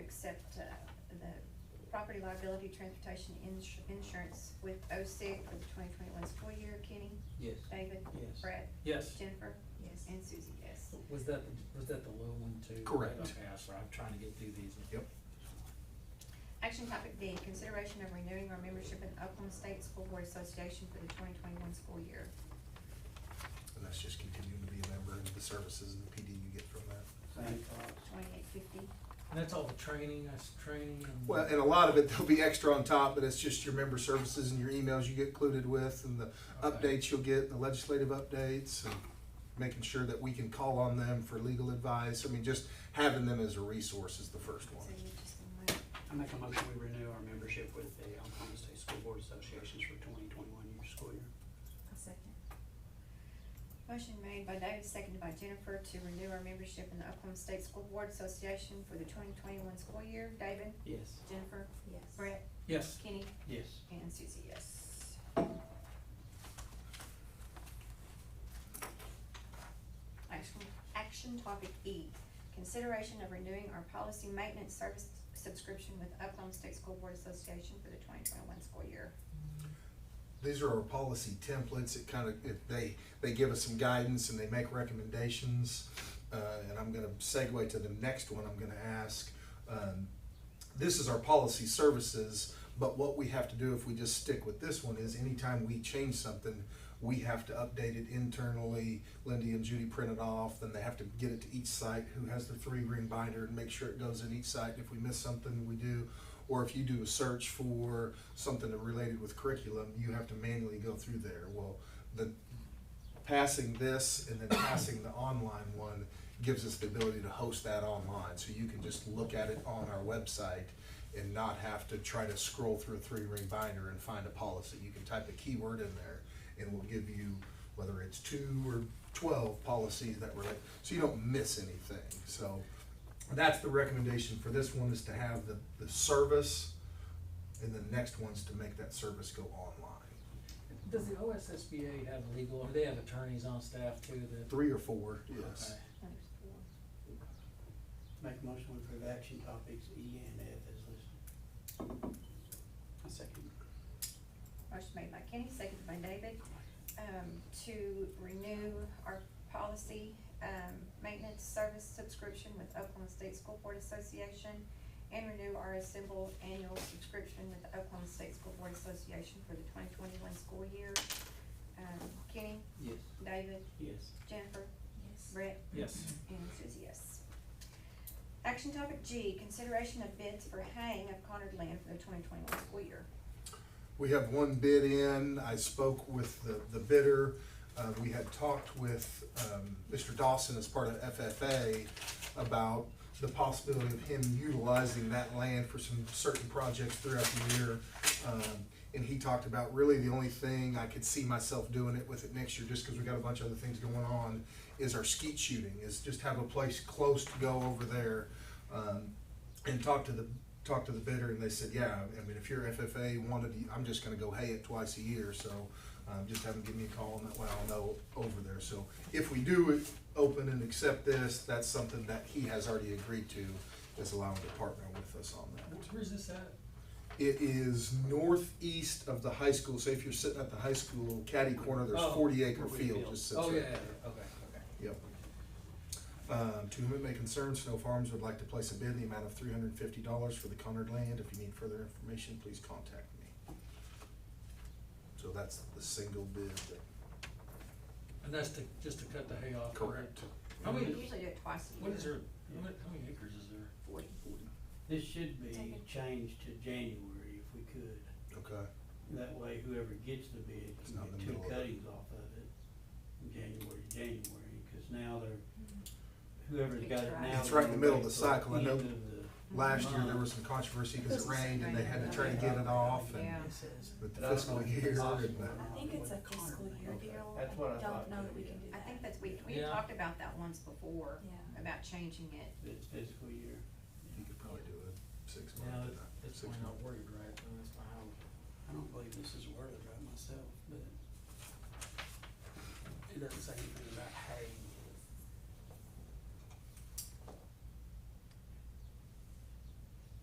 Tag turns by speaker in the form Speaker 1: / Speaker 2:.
Speaker 1: uh, property liability transportation ins- insurance with OSIG for the twenty twenty-one school year. Kenny?
Speaker 2: Yes.
Speaker 1: David?
Speaker 2: Yes.
Speaker 1: Brett?
Speaker 3: Yes.
Speaker 1: Jennifer?
Speaker 4: Yes.
Speaker 1: And Susie, yes.
Speaker 3: Was that, the- was that the low one too?
Speaker 2: Correct.
Speaker 3: Okay, I'm sorry, I'm trying to get through these.
Speaker 2: Yep.
Speaker 1: Action topic D, consideration of renewing our membership in Oklahoma State School Board Association for the twenty twenty-one school year.
Speaker 5: And that's just continuing to be a member of the services and the PD you get from that.
Speaker 2: Thank God.
Speaker 1: Twenty-eight fifty.
Speaker 3: And that's all the training, that's training and.
Speaker 5: Well, and a lot of it, there'll be extra on top, but it's just your member services and your emails you get included with and the
Speaker 3: Okay.
Speaker 5: updates you'll get, the legislative updates, and making sure that we can call on them for legal advice. I mean, just having them as a resource is the first one.
Speaker 1: So you're just gonna wait.
Speaker 6: I make a motion we renew our membership with the Oklahoma State School Board Associations for twenty twenty-one year school year.
Speaker 4: A second.
Speaker 1: Motion made by David, seconded by Jennifer to renew our membership in the Oklahoma State School Board Association for the twenty twenty-one school year. David?
Speaker 6: Yes.
Speaker 1: Jennifer?
Speaker 4: Yes.
Speaker 1: Brett?
Speaker 3: Yes.
Speaker 1: Kenny?
Speaker 2: Yes.
Speaker 1: And Susie, yes. Action, action topic E, consideration of renewing our policy maintenance service subscription with Oklahoma State School Board Association for the twenty twenty-one school year.
Speaker 5: These are our policy templates. It kind of, it, they, they give us some guidance and they make recommendations. Uh, and I'm gonna segue to the next one I'm gonna ask. Um, this is our policy services, but what we have to do if we just stick with this one is anytime we change something, we have to update it internally. Lindy and Judy print it off, then they have to get it to each site who has the three ring binder and make sure it goes in each site. If we miss something, we do. Or if you do a search for something related with curriculum, you have to manually go through there. Well, the passing this and then passing the online one gives us the ability to host that online. So you can just look at it on our website and not have to try to scroll through a three ring binder and find a policy. You can type a keyword in there and we'll give you whether it's two or twelve policies that relate, so you don't miss anything. So that's the recommendation for this one is to have the, the service and the next one's to make that service go online.
Speaker 3: Does the OSSBA have legal, or they have attorneys on staff too that?
Speaker 5: Three or four, yes.
Speaker 3: Okay.
Speaker 1: Numbers four.
Speaker 6: Make a motion we approve action topics E and F as listed. A second.
Speaker 1: Motion made by Kenny, seconded by David, um, to renew our policy, um, maintenance service subscription with Oklahoma State School Board Association and renew our assembled annual subscription with the Oklahoma State School Board Association for the twenty twenty-one school year. Um, Kenny,
Speaker 2: Yes.
Speaker 1: David,
Speaker 6: Yes.
Speaker 1: Jennifer,
Speaker 4: Yes.
Speaker 1: Brett,
Speaker 3: Yes.
Speaker 1: and Susie, yes. Action topic G, consideration of bids for haying of Conard land for the twenty twenty-one school year.
Speaker 5: We have one bid in. I spoke with the, the bidder. Uh, we had talked with, um, Mr. Dawson as part of FFA about the possibility of him utilizing that land for some certain projects throughout the year. Um, and he talked about really the only thing I could see myself doing it with it next year, just because we got a bunch of other things going on, is our skeet shooting, is just have a place close to go over there. Um, and talked to the talked to the bidder and they said, yeah, I mean, if your FFA wanted, to- I'm just gonna go hay it twice a year, so um, just have them give me a call and that way I'll know over there. So if we do it, open and accept this, that's something that he has already agreed to, is allowing to partner with us on that.
Speaker 3: Where's this at?
Speaker 5: It is northeast of the high school, so if you're sitting at the high school caddy corner, there's
Speaker 3: Oh,
Speaker 5: forty acre
Speaker 6: forty
Speaker 5: field
Speaker 6: field.
Speaker 5: just sits
Speaker 3: Oh,
Speaker 5: right
Speaker 3: yeah, yeah,
Speaker 5: there.
Speaker 3: yeah. okay, okay.
Speaker 5: Yep. Um, to whom it may concern, Snow Farms would like to place a bid in the amount of three hundred and fifty dollars for the Conard land. If you need further information, please contact me. So that's the single bid that.
Speaker 3: And that's to, just to cut the hay off. How
Speaker 1: We
Speaker 3: many,
Speaker 1: usually do it twice a year.
Speaker 3: what is there, how many- how many acres is there?
Speaker 1: Forty.
Speaker 6: This should be
Speaker 1: Second.
Speaker 6: changed to January if we could.
Speaker 5: Okay.
Speaker 6: That way whoever gets the bid
Speaker 5: It's
Speaker 6: can
Speaker 5: not in
Speaker 6: get
Speaker 5: the
Speaker 6: two
Speaker 5: middle of it.
Speaker 6: cuttings off of it from January to January, cause now they're, whoever's got it
Speaker 1: Mm-hmm. It's
Speaker 6: now.
Speaker 1: right.
Speaker 5: It's right in the middle of
Speaker 6: they're
Speaker 5: the
Speaker 6: gonna wait
Speaker 5: cycle. I
Speaker 6: till
Speaker 5: know
Speaker 6: the end of the-
Speaker 5: Last year, there was some controversy because it rained and they had to try to get it off and
Speaker 1: Yeah.
Speaker 5: with the
Speaker 6: But I don't know if
Speaker 5: fiscal
Speaker 6: it's
Speaker 5: year and
Speaker 6: possible
Speaker 5: the.
Speaker 6: or not.
Speaker 4: I think it's a fiscal year
Speaker 6: Okay.
Speaker 4: deal.
Speaker 6: That's what I thought,
Speaker 4: Don't know that
Speaker 6: too, yeah.
Speaker 4: we can do
Speaker 1: I
Speaker 4: that.
Speaker 1: think that's, we, we
Speaker 3: Yeah.
Speaker 1: talked about that once before,
Speaker 4: Yeah.
Speaker 1: about changing it.
Speaker 6: It's fiscal year.
Speaker 5: You could probably do a six
Speaker 3: Yeah,
Speaker 5: month.
Speaker 3: that's
Speaker 5: six
Speaker 3: why I'm
Speaker 5: month.
Speaker 3: not worried, right? I mean, That's my house.
Speaker 6: I don't believe this is worded right myself, but it doesn't say anything